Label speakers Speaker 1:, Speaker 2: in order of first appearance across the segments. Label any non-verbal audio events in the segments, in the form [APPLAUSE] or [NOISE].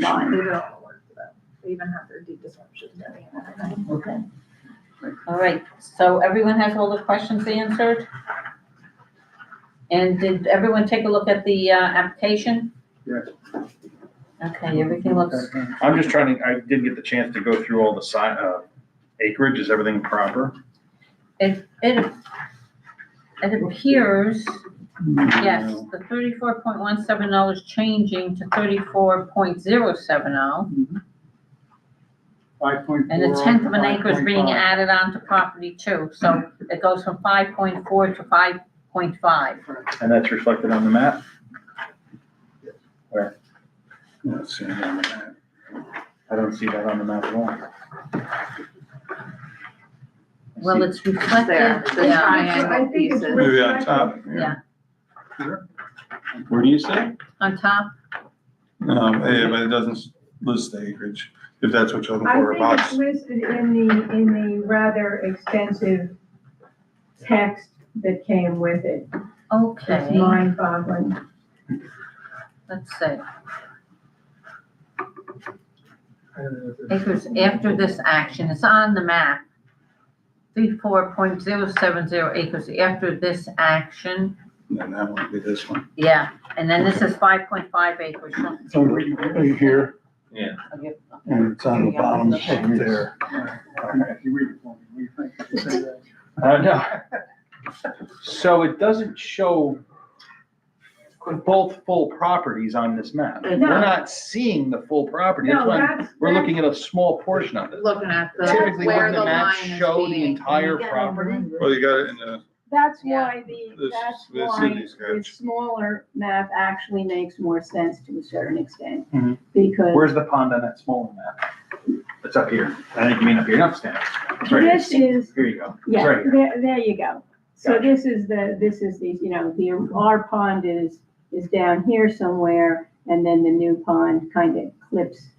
Speaker 1: law, they did all the work for that. They even have their deed disruption. Thank
Speaker 2: Okay. All right, so everyone has all the questions answered? And did everyone take a look at the, uh, application?
Speaker 3: Yes.
Speaker 2: Okay, everything looks,
Speaker 3: I'm just trying to, I didn't get the chance to go through all the si, uh, acreage, is everything proper?
Speaker 2: it, it, it appears, yes, the thirty-four point one seven oh is changing to thirty-four point zero seven oh.
Speaker 4: Five point four.
Speaker 2: And a tenth of an acre is being
Speaker 4: at.
Speaker 2: added onto property too, so it goes from five point four to five point five.
Speaker 3: And that's reflected on the map?
Speaker 4: Let's see. Well,
Speaker 3: I don't see that on the map at all.
Speaker 2: Well, it's reflected,
Speaker 5: There, the
Speaker 2: yeah.
Speaker 5: triangle pieces.
Speaker 1: Maybe on top.
Speaker 2: Yeah.
Speaker 6: Where do you say?
Speaker 2: on top,
Speaker 6: Um, eh, but it doesn't list the acreage, if that's what you're looking
Speaker 1: I
Speaker 6: for, a
Speaker 1: think
Speaker 6: box.
Speaker 1: it's listed in the, in the rather extensive text that came with it. It's
Speaker 2: okay,
Speaker 1: mind boggling.
Speaker 2: let's see. Acres after this action, it's on the map. Thirty-four point zero seven zero acres after this action,
Speaker 6: Then that would be this one.
Speaker 2: yeah, and then this is five point five acres.
Speaker 4: It's over here,
Speaker 2: Okay,
Speaker 4: and it's on the bottom up there.
Speaker 3: Uh, no. So it doesn't show both full properties on this map. We're
Speaker 1: No.
Speaker 3: not seeing the full property, that's
Speaker 1: No,
Speaker 3: why
Speaker 1: that's.
Speaker 3: we're looking at a small portion of it.
Speaker 5: Looking at the,
Speaker 3: Typically,
Speaker 5: where
Speaker 3: wouldn't
Speaker 5: the
Speaker 3: the map
Speaker 5: line is
Speaker 3: show the
Speaker 5: being.
Speaker 3: entire property?
Speaker 6: Well, you got it in the,
Speaker 7: That's
Speaker 2: Yeah.
Speaker 7: why the,
Speaker 6: This-
Speaker 7: that's
Speaker 6: this
Speaker 7: why
Speaker 6: city's got-
Speaker 7: the smaller map actually makes more sense to a certain extent.
Speaker 3: Mhm.
Speaker 7: Because
Speaker 3: Where's the pond on that smaller map? It's up here. I think you mean up here, not standing. It's right
Speaker 7: this is,
Speaker 3: Here you go.
Speaker 7: yeah,
Speaker 3: right here.
Speaker 7: there, there you go. So
Speaker 3: Gotcha.
Speaker 7: this is the, this is the, you know, the, our pond is, is down here somewhere, and then the new pond kind of clips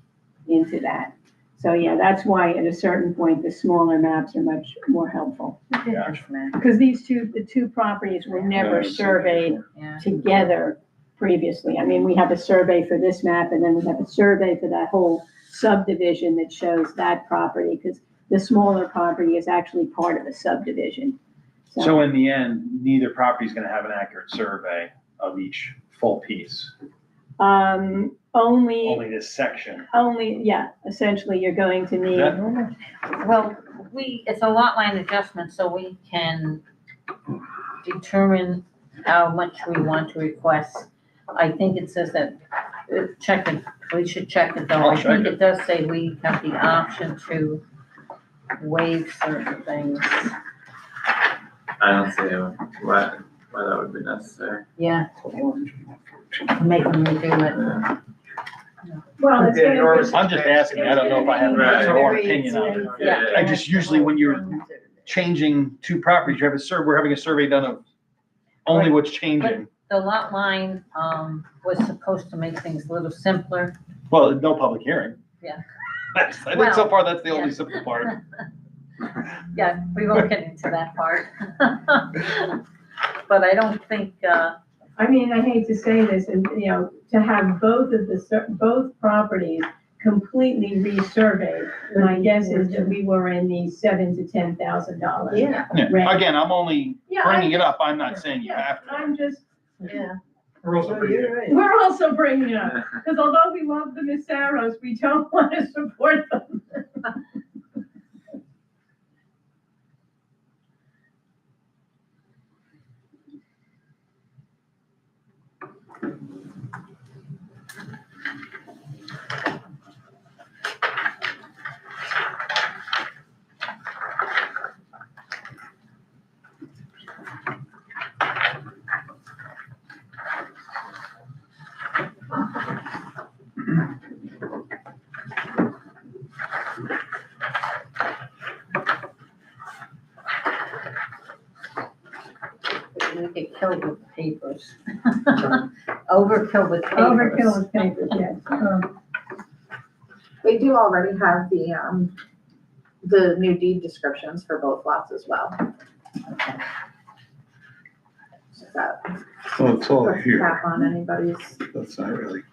Speaker 7: into that. So, yeah, that's why at a certain point, the smaller maps are much more helpful. Because these two, the two properties were
Speaker 6: Yeah,
Speaker 7: never
Speaker 6: I've seen that
Speaker 7: surveyed
Speaker 2: Yeah,
Speaker 7: together previously. I mean, we have a survey for this map and then we have a survey for that whole subdivision that shows that property because the smaller property is actually part of a subdivision. So,
Speaker 3: So in the end, neither property's gonna have an accurate survey of each full piece,
Speaker 7: um, only,
Speaker 3: only this section.
Speaker 7: only, yeah, essentially you're going to
Speaker 3: Is
Speaker 7: need,
Speaker 3: that normal?
Speaker 2: well, we, it's a lot line adjustment, so we can determine how much we want to request. I think it says that, uh, check it, we should check it though.
Speaker 3: I'll
Speaker 2: I
Speaker 3: check
Speaker 2: think it does say we have the option to waive certain things.
Speaker 8: I don't see why, why that would be necessary.
Speaker 2: Yeah, make them redo it.
Speaker 8: Yeah.
Speaker 1: Well, it's gonna be-
Speaker 3: I'm just asking, I don't know if I have a
Speaker 8: Right.
Speaker 3: personal opinion on it.
Speaker 2: Yeah.
Speaker 3: I just usually, when you're changing two properties, you have a survey, we're having a survey done of only what's changing.
Speaker 2: The lot line, um, was supposed to make things a little simpler.
Speaker 3: Well, no public hearing.
Speaker 2: Yeah.
Speaker 3: That's, [LAUGHS] I think so far, that's the
Speaker 2: Well,
Speaker 3: only
Speaker 2: yeah.
Speaker 3: simple part.
Speaker 2: Yeah, we won't get into that part. But I don't think, uh,
Speaker 1: I mean, I hate to say this, and, you know, to have both of the, sur- both properties completely resurveyed, my guess is that we were in the seven to ten thousand dollars.
Speaker 5: Yeah,
Speaker 3: Yeah. Again, I'm only
Speaker 1: Yeah,
Speaker 3: bringing
Speaker 1: I,
Speaker 3: it up, I'm not saying you
Speaker 1: yeah,
Speaker 3: have to.
Speaker 1: I'm just,
Speaker 5: yeah.
Speaker 4: We're also
Speaker 5: No,
Speaker 4: pretty good.
Speaker 5: you're right.
Speaker 1: we're also bringing it up, because although we love the Missaros, we don't [LAUGHS] want to support them.
Speaker 2: we get killed with papers. [LAUGHS] Overkill with papers.
Speaker 1: Overkill is paper, yes. Um,
Speaker 5: They do already have the, um, the new deed descriptions for both lots as well. So,
Speaker 6: Well, it's all
Speaker 5: put
Speaker 6: here,
Speaker 4: Oh,
Speaker 3: Oh,
Speaker 5: cap on anybody's,
Speaker 6: that's not really